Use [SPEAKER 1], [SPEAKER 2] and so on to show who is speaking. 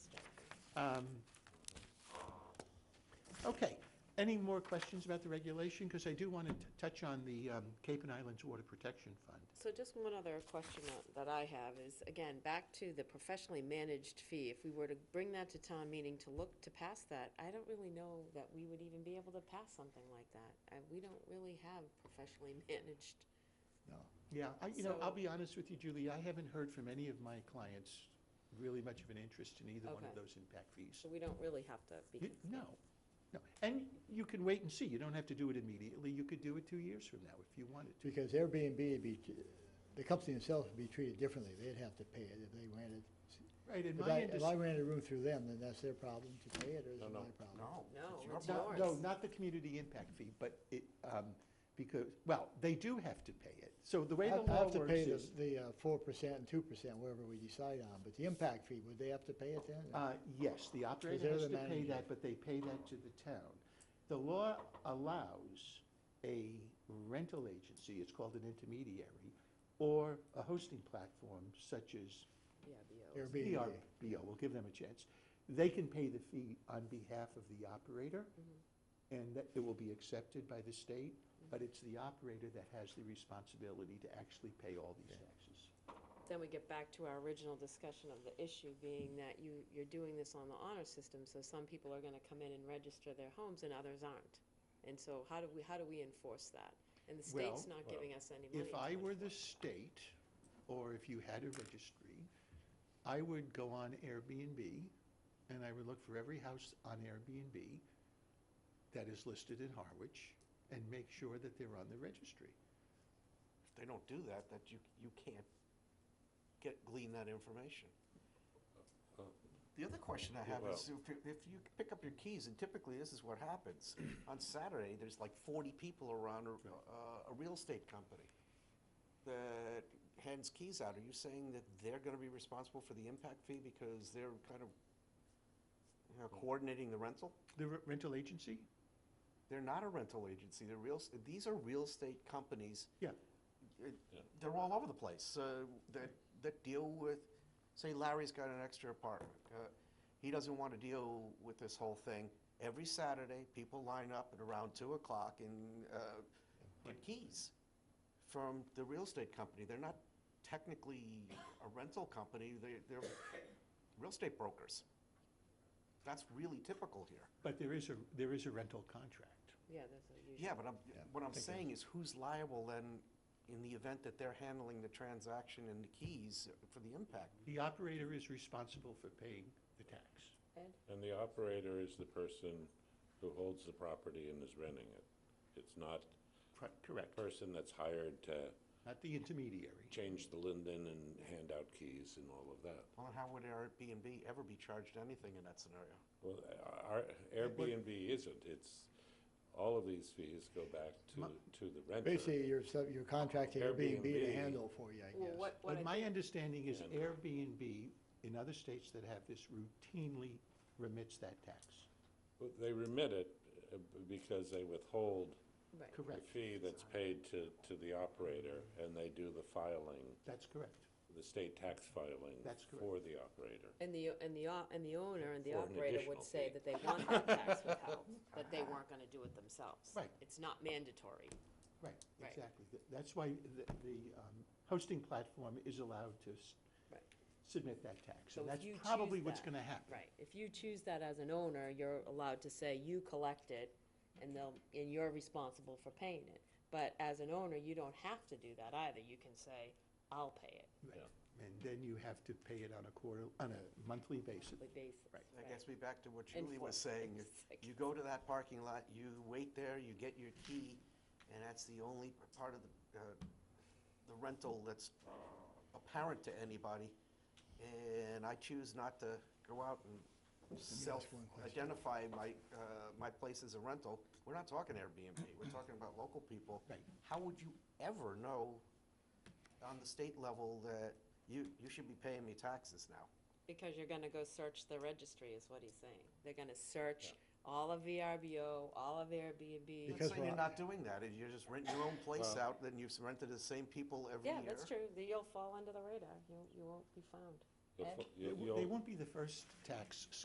[SPEAKER 1] Um, Okay, any more questions about the regulation? Because I do want to touch on the um, Cape and Islands Water Protection Fund.
[SPEAKER 2] So just one other question that- that I have is, again, back to the professionally managed fee. If we were to bring that to town meeting to look to pass that, I don't really know that we would even be able to pass something like that. Uh, We don't really have professionally managed.
[SPEAKER 1] Yeah, I, you know, I'll
[SPEAKER 2] So-
[SPEAKER 1] be honest with you, Julie, I haven't heard from any of my clients really much of an interest in either one
[SPEAKER 2] Okay.
[SPEAKER 1] of those impact fees.
[SPEAKER 2] So we don't really have to be.
[SPEAKER 1] You-
[SPEAKER 2] concerned.
[SPEAKER 1] No, no. And you can wait and see. You don't have to do it immediately. You could do it two years from now if you wanted to.
[SPEAKER 3] Because Airbnb would be, t- the company themselves would be treated differently. They'd have to pay it if they rented.
[SPEAKER 1] Right, in my
[SPEAKER 3] If I, if I
[SPEAKER 1] industry,
[SPEAKER 3] rented a room through them, then that's their problem to pay it, or is
[SPEAKER 4] No,
[SPEAKER 3] it
[SPEAKER 4] no,
[SPEAKER 3] my problem?
[SPEAKER 4] No.
[SPEAKER 2] No,
[SPEAKER 4] your
[SPEAKER 2] it's
[SPEAKER 4] problem.
[SPEAKER 2] yours.
[SPEAKER 1] no, not the community impact fee, but it, um, because, well, they do have to pay it. So the way the
[SPEAKER 3] I
[SPEAKER 1] law
[SPEAKER 3] have to
[SPEAKER 1] works
[SPEAKER 3] pay the,
[SPEAKER 1] is,
[SPEAKER 3] the uh, four percent and two percent, wherever we decide on, but the impact fee, would they have to pay it then?
[SPEAKER 1] uh, yes, the operator
[SPEAKER 3] they're
[SPEAKER 1] has
[SPEAKER 3] the
[SPEAKER 1] to pay
[SPEAKER 3] manager.
[SPEAKER 1] that, but they pay that to the town. The law allows a rental agency, it's called an intermediary, or a hosting platform such as
[SPEAKER 2] Yeah, BOs.
[SPEAKER 3] Airbnb,
[SPEAKER 1] ERBO, we'll give them a chance. They can pay the fee on behalf of the operator, and that it will be accepted by the state, but it's the operator that has the responsibility to actually pay all these taxes.
[SPEAKER 2] Then we get back to our original discussion of the issue being that you, you're doing this on the honor system, so some people are gonna come in and register their homes and others aren't. And so how do we, how do we enforce that? And the state's
[SPEAKER 1] Well,
[SPEAKER 2] not giving us any money.
[SPEAKER 1] If
[SPEAKER 2] to
[SPEAKER 1] I were the
[SPEAKER 2] enforce.
[SPEAKER 1] state, or if you had a registry, I would go on Airbnb, and I would look for every house on Airbnb that is listed in Harwich, and make sure that they're on the registry.
[SPEAKER 4] If they don't do that, that you, you can't get, glean that information. The other question I have is, if, you- if you pick up your keys, and typically this is what happens, on Saturday, there's like forty people around a, uh, a- a real estate company that hands keys out. Are you saying that they're gonna be responsible for the impact fee because they're kind of, you know, coordinating the rental?
[SPEAKER 1] The re- rental agency?
[SPEAKER 4] They're not a rental agency, they're real, s- these are real estate companies
[SPEAKER 1] Yeah.
[SPEAKER 4] it- they're all over the place, uh, that, that deal with, say Larry's got an extra apartment. uh, He doesn't want to deal with this whole thing. Every Saturday, people line up at around two o'clock and uh, get keys from the real estate company. They're not technically a rental company, they, they're real estate brokers. That's really typical here.
[SPEAKER 1] But there is a, there is a rental contract.
[SPEAKER 2] Yeah, that's a usual.
[SPEAKER 4] Yeah, but I'm, what I'm saying is who's liable then in the event that they're handling the transaction and the keys for the impact?
[SPEAKER 1] The operator is responsible for paying the tax.
[SPEAKER 2] Ed?
[SPEAKER 5] And the operator is the person who holds the property and is renting it. It's not
[SPEAKER 1] Cor-
[SPEAKER 5] a
[SPEAKER 1] Correct,
[SPEAKER 5] person that's hired to
[SPEAKER 1] not the intermediary.
[SPEAKER 5] change the linden and hand out keys and all of that.
[SPEAKER 4] Well, then how would Airbnb ever be charged anything in that scenario?
[SPEAKER 5] Well, uh, our Airbnb isn't, it's, all of these fees go back to, to the renter.
[SPEAKER 3] Basically, you're, sub- you're contracting Airbnb to
[SPEAKER 5] Airbnb.
[SPEAKER 3] handle for you, I
[SPEAKER 2] Well,
[SPEAKER 3] guess.
[SPEAKER 2] what, what
[SPEAKER 1] But
[SPEAKER 2] I
[SPEAKER 1] my
[SPEAKER 2] think,
[SPEAKER 1] understanding is
[SPEAKER 5] And-
[SPEAKER 1] Airbnb in other states that have this routinely remits that tax.
[SPEAKER 5] Well, They remit it uh, b- because they withhold
[SPEAKER 2] right,
[SPEAKER 5] the
[SPEAKER 1] Correct,
[SPEAKER 5] fee that's paid to, to the operator, and they do the filing,
[SPEAKER 1] that's correct.
[SPEAKER 5] the state tax filing
[SPEAKER 1] That's correct.
[SPEAKER 5] for the operator.
[SPEAKER 2] and the, and the, o- and the owner and the
[SPEAKER 5] For an
[SPEAKER 2] operator
[SPEAKER 5] additional
[SPEAKER 2] would say
[SPEAKER 5] fee.
[SPEAKER 2] that they want that tax withheld, that they weren't gonna do it themselves.
[SPEAKER 1] Right.
[SPEAKER 2] It's not mandatory.
[SPEAKER 1] Right,
[SPEAKER 2] Right.
[SPEAKER 1] exactly. Th- That's why the, the um, hosting platform is allowed to s-
[SPEAKER 2] Right.
[SPEAKER 1] submit that tax.
[SPEAKER 2] So if
[SPEAKER 1] And that's
[SPEAKER 2] you choose
[SPEAKER 1] probably what's
[SPEAKER 2] that-
[SPEAKER 1] going to happen.
[SPEAKER 2] Right, if you choose that as an owner, you're allowed to say you collect it and they'll, and you're responsible for paying it. But as an owner, you don't have to do that either, you can say, I'll pay it
[SPEAKER 1] Right. And then you have to pay it on a quarter, on a monthly basis.
[SPEAKER 2] on a basis.
[SPEAKER 1] Right.
[SPEAKER 4] That gets me back to what
[SPEAKER 2] And
[SPEAKER 4] Julie was
[SPEAKER 2] for-
[SPEAKER 4] saying. You-
[SPEAKER 2] Like-
[SPEAKER 4] You go to that parking lot, you wait there, you get your key, and that's the only part of the, uh, the rental that's apparent to anybody. And I choose not to go out and
[SPEAKER 3] one question.
[SPEAKER 4] self-identify my, uh, my place as a rental. We're not talking Airbnb, we're talking about local people.
[SPEAKER 1] Right.
[SPEAKER 4] How would you ever know on the state level that you, you should be paying me taxes now?
[SPEAKER 2] Because you're gonna go search the registry is what he's saying. They're gonna search all of VRBO, all of Airbnb.
[SPEAKER 3] Because
[SPEAKER 4] Because you're
[SPEAKER 3] we're-
[SPEAKER 4] not doing that, if you're just renting your own place
[SPEAKER 5] Well-
[SPEAKER 4] out, then you've rented to the same people every year.
[SPEAKER 2] Yeah, that's true, Then you'll fall under the radar, you, you won't be found.
[SPEAKER 5] You'll
[SPEAKER 2] Ed?
[SPEAKER 5] fo-
[SPEAKER 1] They
[SPEAKER 5] you-
[SPEAKER 1] w-
[SPEAKER 5] you'll-
[SPEAKER 1] they won't be the first tax